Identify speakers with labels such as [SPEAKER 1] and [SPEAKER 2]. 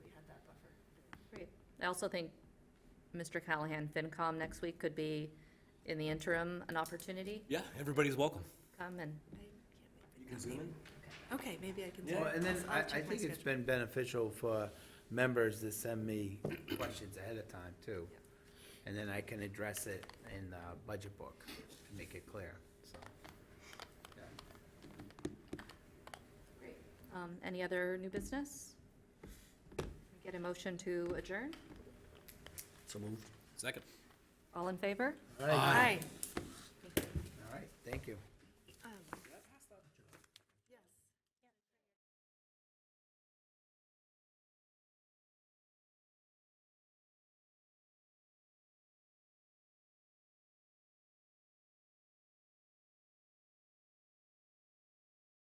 [SPEAKER 1] I also think Mr. Callahan, FinCom next week could be, in the interim, an opportunity.
[SPEAKER 2] Yeah, everybody's welcome.
[SPEAKER 1] Come and,
[SPEAKER 3] Okay, maybe I can.
[SPEAKER 2] Yeah.
[SPEAKER 3] do
[SPEAKER 4] Well,
[SPEAKER 3] it.
[SPEAKER 4] and then
[SPEAKER 3] I'll- I'll
[SPEAKER 4] I, I
[SPEAKER 3] check my
[SPEAKER 4] think it's
[SPEAKER 3] schedule.
[SPEAKER 4] been beneficial for members to send me questions ahead of time too. And then I can address it in the budget book and make it clear, so.
[SPEAKER 1] um, any other new business? Get a motion to adjourn?
[SPEAKER 2] So moved. Second.
[SPEAKER 1] All in favor?
[SPEAKER 4] All right,
[SPEAKER 3] Aye.
[SPEAKER 4] all right, thank you.